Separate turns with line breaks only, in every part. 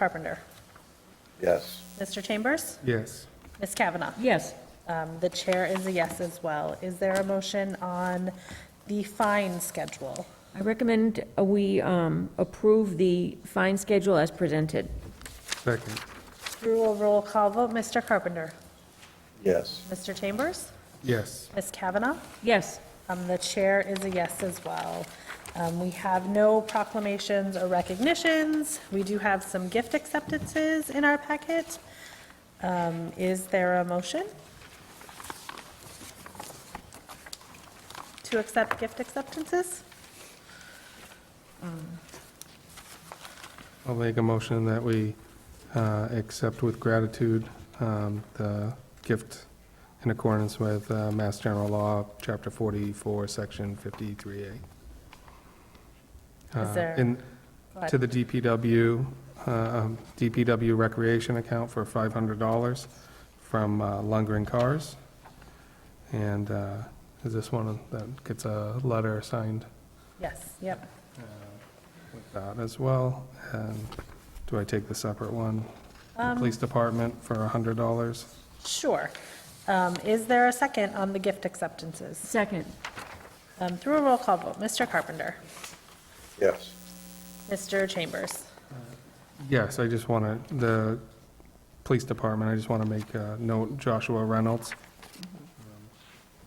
Carpenter.
Yes.
Mr. Chambers?
Yes.
Ms. Kavanaugh?
Yes.
Um, The chair is a yes as well. Is there a motion on the fine schedule?
I recommend uh, we um, approve the fine schedule as presented.
Second.
Through a roll call vote, Mr. Carpenter?
Yes.
Mr. Chambers?
Yes.
Ms. Kavanaugh?
Yes.
Um, The chair is a yes as well. Um, We have no proclamations or recognitions. We do have some gift acceptances in our packet. Um, Is there a motion? To accept gift acceptances?
I'll make a motion that we uh, accept with gratitude um, the gift in accordance with uh, Mass General Law, Chapter 44, Section 53A. Uh,
there-
in-
Go ahead.
To the DPW, uh, um, DPW Recreation Account for $500 from uh, Lundgren Cars. And uh, is this one that gets a letter signed?
Yes, yep.
with that as well. And do I take the separate one? The
Um,
Police Department for $100.
Sure. Um, Is there a second on the gift acceptances?
Second.
Um, Through a roll call vote, Mr. Carpenter,
Yes.
Mr. Chambers,
Yes, I just want to, the Police Department, I just want to make a note, Joshua Reynolds.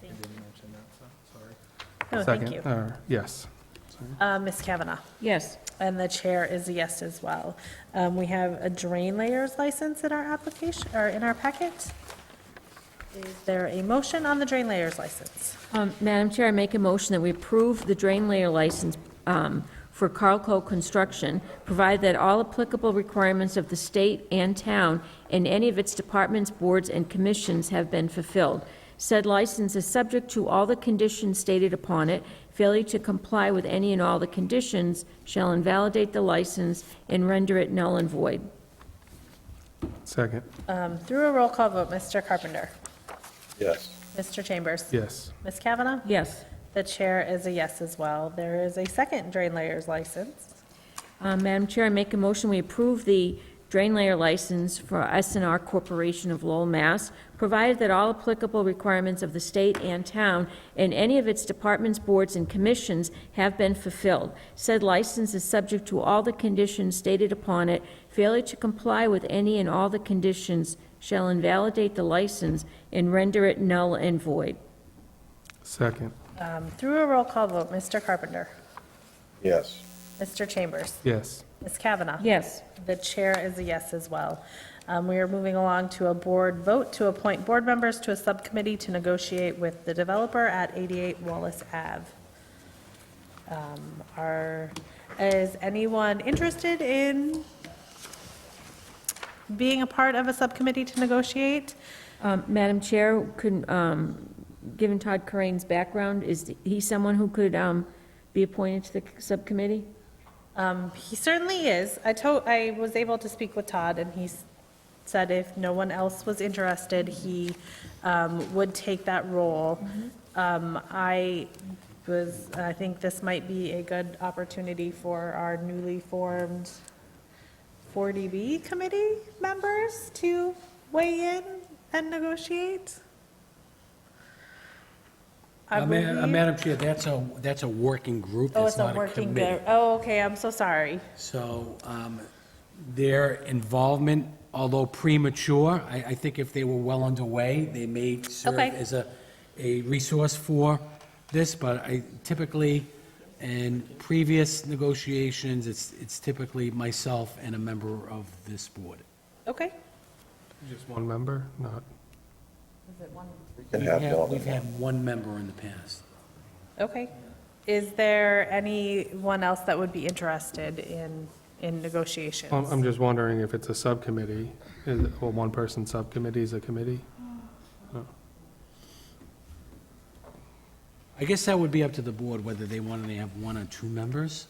I
Thank
didn't mention that,
No,
sorry.
Oh, thank you.
Second, or, yes. Sorry.
Uh, Ms. Kavanaugh,
Yes.
and the chair is a yes as well. Um, We have a drain layers license in our application, or in our packet. Is there a motion on the drain layers license?
Um, Madam Chair, I make a motion that we approve the drain layer license um, for Carlco Construction, provided that all applicable requirements of the state and town and any of its departments, boards, and commissions have been fulfilled. Said license is subject to all the conditions stated upon it. Failure to comply with any and all the conditions shall invalidate the license and render it null and void.
Second,
Um, Through a roll call vote, Mr. Carpenter,
Yes.
Mr. Chambers,
yes.
Ms. Kavanaugh,
Yes.
the chair is a yes as well. There is a second drain layers license.
Uh, Madam Chair, I make a motion, we approve the drain layer license for s and R Corporation of Lowell, Mass., provided that all applicable requirements of the state and town and any of its departments, boards, and commissions have been fulfilled. Said license is subject to all the conditions stated upon it. Failure to comply with any and all the conditions shall invalidate the license and render it null and void.
Second,
Um, Through a roll call vote, Mr. Carpenter,
Yes.
Mr. Chambers,
yes.
Ms. Kavanaugh.
Yes.
The chair is a yes as well. Um, We are moving along to a board vote to appoint board members to a subcommittee to negotiate with the developer at 88 Wallace Ave. Um, Are, is anyone interested in being a part of a subcommittee to negotiate?
Um, Madam Chair, could, um, given Todd Corain's background, is he someone who could um, be appointed to the subcommittee?
Um, He certainly is. I told, I was able to speak with Todd, and he s- said if no one else was interested, he um, would take that role. Um, I was, I think this might be a good opportunity for our newly formed 40B committee members to weigh in and negotiate. I
Uh, Ma- uh,
believe-
Madam Chair, that's a, that's a working group,
Oh,
that's
it's a
not a
working,
committee.
group. oh, okay, I'm so sorry.
So um, their involvement, although premature, I, I think if they were well underway, they may serve
Okay.
as a, a resource for this, but I typically, in previous negotiations, it's, it's typically myself and a member of this board.
Okay.
Just one member, not,
We can have
We've had-
one.
We've had one member in the past.
Okay. Is there anyone else that would be interested in, in negotiations?
Um, I'm I'm just wondering if it's a subcommittee, is, it- well, one person subcommittee is a committee?
I guess that would be up to the board whether they wanted to have one or two members.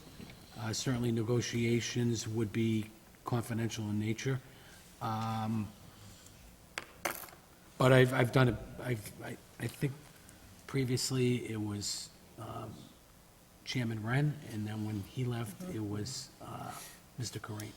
Uh, Certainly negotiations would be confidential in nature. Um, But I've, I've done it, I've, I, I think previously it was um, Chairman Wren, and then when he left, it was uh, Mr. Corain.